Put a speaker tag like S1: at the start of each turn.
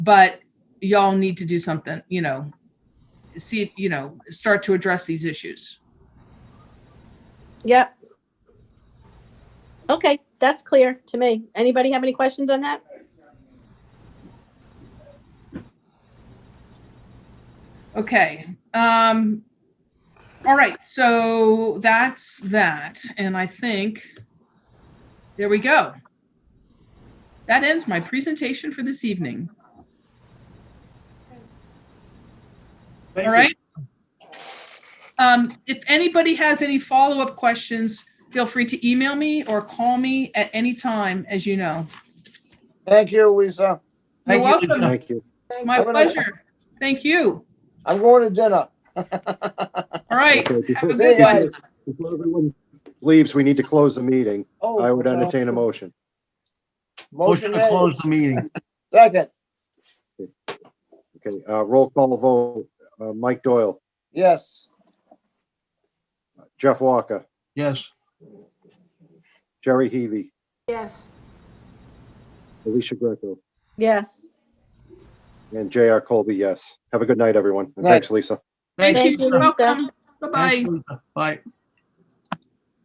S1: but y'all need to do something, you know, see, you know, start to address these issues.
S2: Yep. Okay, that's clear to me. Anybody have any questions on that?
S1: Okay, um, all right, so that's that, and I think, there we go. That ends my presentation for this evening,
S3: Thank
S1: all
S3: you.
S1: right? Um, if anybody has any follow-up questions, feel free to email me or call me at any time, as you know.
S3: Thank you, Lisa.
S1: You're
S4: Thank you,
S1: welcome.
S4: Lisa.
S5: Thank you.
S1: My
S3: Have a nice-
S1: pleasure, thank you,
S3: I'm going to dinner.
S1: all right.
S5: Okay,
S1: Have a
S5: before-
S3: See you
S1: good one.
S3: guys.
S5: Before everyone leaves, we need to close the meeting.
S3: Oh,
S5: I would
S3: sorry.
S5: entertain a motion.
S3: Motion
S4: Motion to
S3: made.
S4: close the meeting.
S3: Second,
S5: Okay, uh, roll call vote. Uh, Mike Doyle,
S3: yes.
S5: Jeff Walker,
S4: Yes.
S5: Jerry Heavy,
S6: Yes.
S5: Alicia Greco,
S2: Yes.
S5: and J.R. Colby, yes. Have a good night, everyone. And Thanks, Lisa.
S1: Thank
S2: Thank
S1: you,
S2: you,
S1: You're
S2: Lisa.
S1: welcome, bye-bye.
S4: Thanks, Lisa. Bye.